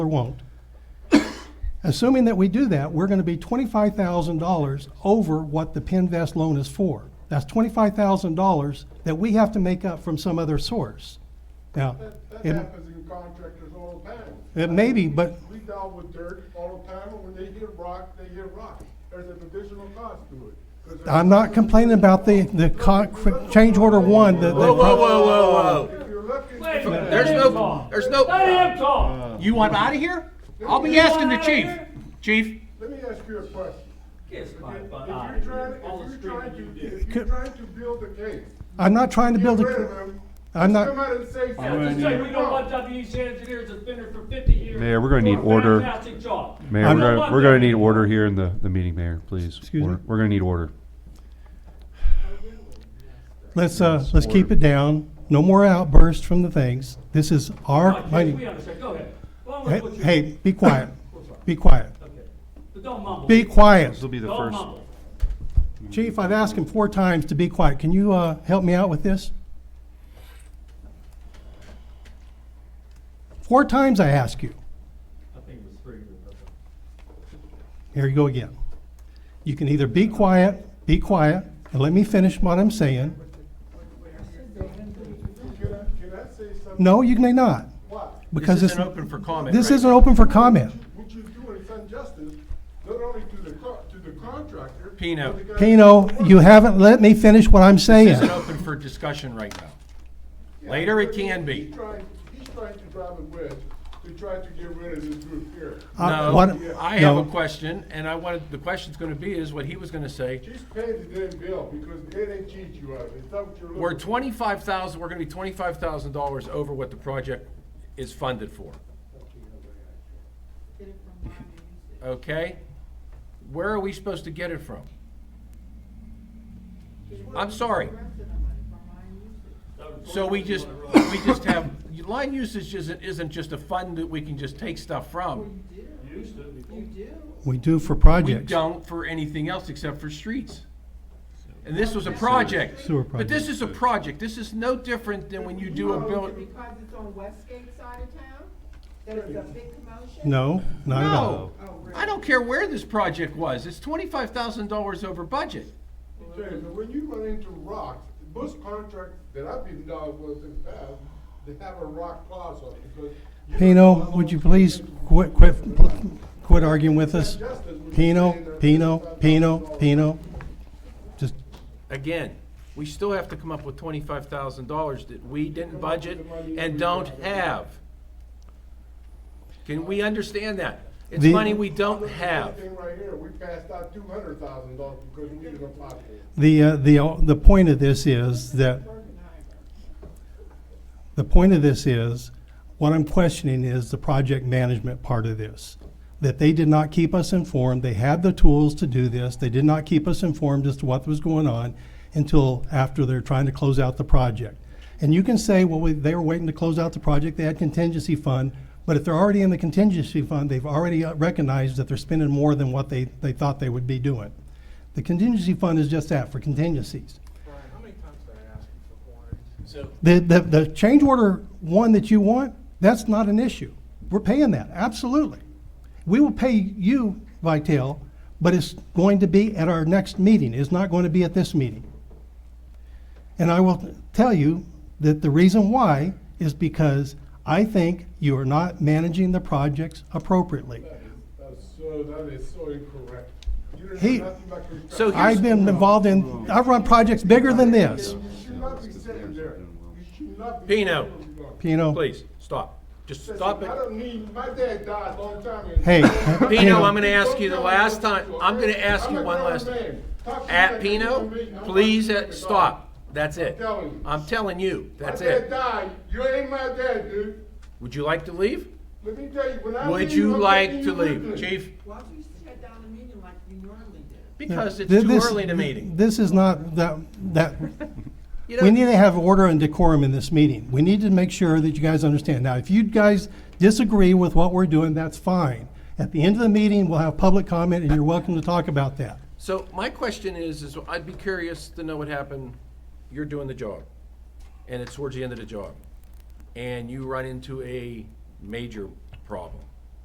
or won't. Assuming that we do that, we're gonna be twenty-five thousand dollars over what the Pinvest loan is for. That's twenty-five thousand dollars that we have to make up from some other source. Now, That, that it, happens in contractors all the time. it may be, but We deal with dirt all the time, and when they hit rock, they hit rock. There's an additional cost to it. 'Cause if- I'm not complaining about the, the con, change order one, the, Whoa, whoa, the, whoa, whoa, whoa. If you're looking. Wait, let There's him no- talk. there's no- Let him Uh. talk. You want out of here? I'll be You want asking the outta chief. here? Chief, Let me ask you a question. Kiss If my if butt you're out of trying, here. uh, All the if you're trying screaming you to, did. if you're trying to build a case, I'm not trying to get build rid of a, them. I'm Come not, out and say Yeah, just something. say we don't want WEC engineers that's been there for fifty years. Mayor, we're gonna Do a need order. Fantastic job. We Mayor, we're don't gonna, want we're gonna that. need order here in the, the meeting, Mayor, please. Excuse Order. me? We're gonna need order. let's, uh, let's keep it down. No more outbursts from the things. This is our Okay, We money. understand, go ahead. Well, Hey, what you- hey, be quiet. I'm sorry. Be quiet. Okay. But don't mumble. Be quiet. be Don't mumble. Chief, I've asked him four times to be quiet. Can you, uh, help me out with this? Four times I ask you. I think it was three. but- Here you go again. You can either be quiet, be quiet, and let me finish what I'm saying. Can I, can I say something? No, you may not, Why? because this it's, isn't open for comment. this right isn't open for comment. What you're doing is injustice, not only to the co- to the contractor. Pino. but the guy- Pino, you haven't let me finish what I'm now. This saying. isn't open for discussion right now. Later it can be. He's trying, he's trying to drive a wedge to try to get rid of this group here. Uh, No, what- I have no. a question, and I wanted, the question's gonna be is what he was gonna say. She's paying the damn bill because they didn't cheat you out of it. Is that what you're looking? We're twenty-five thousand, we're gonna be twenty-five thousand dollars over what the project is funded for, Uh, okay? Where are we supposed to get it from? I'm sorry. So we just, we just have, line usage isn't, isn't just a fund that we can just take stuff from. Used to before. We do for We projects. don't for anything else except for streets. And this was a project. Sewer But this project. is a project. This is no different than when you do a Oh, Because build. it's on Westgate side of town, that is a big commotion? Oh, No, not at all. No, I don't care where this project was. It's twenty-five thousand dollars over budget. James, when you run into rocks, most contracts that I've been down with in the past, they have a rock clause on it because. you Pino, don't allow would you them to please get into quit, quit, quit arguing with us? injustice when you're Pino, saying that Pino, $25,000 Pino, Pino. Just, Again, we still have to come up with twenty-five thousand dollars that we didn't budget and don't have. Can we understand that? It's The- money we don't have. Thing right here, we passed out two hundred thousand dollars because we needed a pocket. the, uh, the, the point of this is that The point of this is, what I'm questioning is the project management part of this. That they did not keep us informed, they had the tools to do this, they did not keep us informed as to what was going on until after they're trying to close out the project. And you can say, well, we- they were waiting to close out the project, they had contingency fund, but if they're already in the contingency fund, they've already uh, recognized that they're spending more than what they, they thought they would be doing. The contingency fund is just that, for contingencies. The, the, the change order one that you want, that's not an issue. We're paying that, absolutely. We will pay you, Vitale, but it's going to be at our next meeting. It's not going to be at this meeting. And I will tell you that the reason why is because I think you are not managing the projects appropriately. That's so, that is so incorrect. You didn't He- know nothing about construction. So here's. I've been involved in, I've run projects bigger than this. You should not be sitting there. You should not be. Pino. sitting there. Pino, Please, stop. Just Listen, stop it. I don't need, my dad died a long time ago. hey. Pino, I'm gonna ask you the last time, I'm gonna ask you one last time. At Pino, please, uh, stop. That's it. I'm telling you, that's My dad it. died. You ain't my dad, dude. Would you like to leave? Let me tell you, when I. Would leave, you I'm like taking to you with leave, me. chief? Why don't you shut down the meeting like you normally do? Because it's Th- too this- early in the meeting. This is not, that, that, You We know- need to have order and decorum in this meeting. We need to make sure that you guys understand. Now, if you guys disagree with what we're doing, that's fine. At the end of the meeting, we'll have public comment, and you're welcome to talk about that. So my question is, is I'd be curious to know what happened. You're doing the job, and it's towards the end of the job, and you run into a major problem.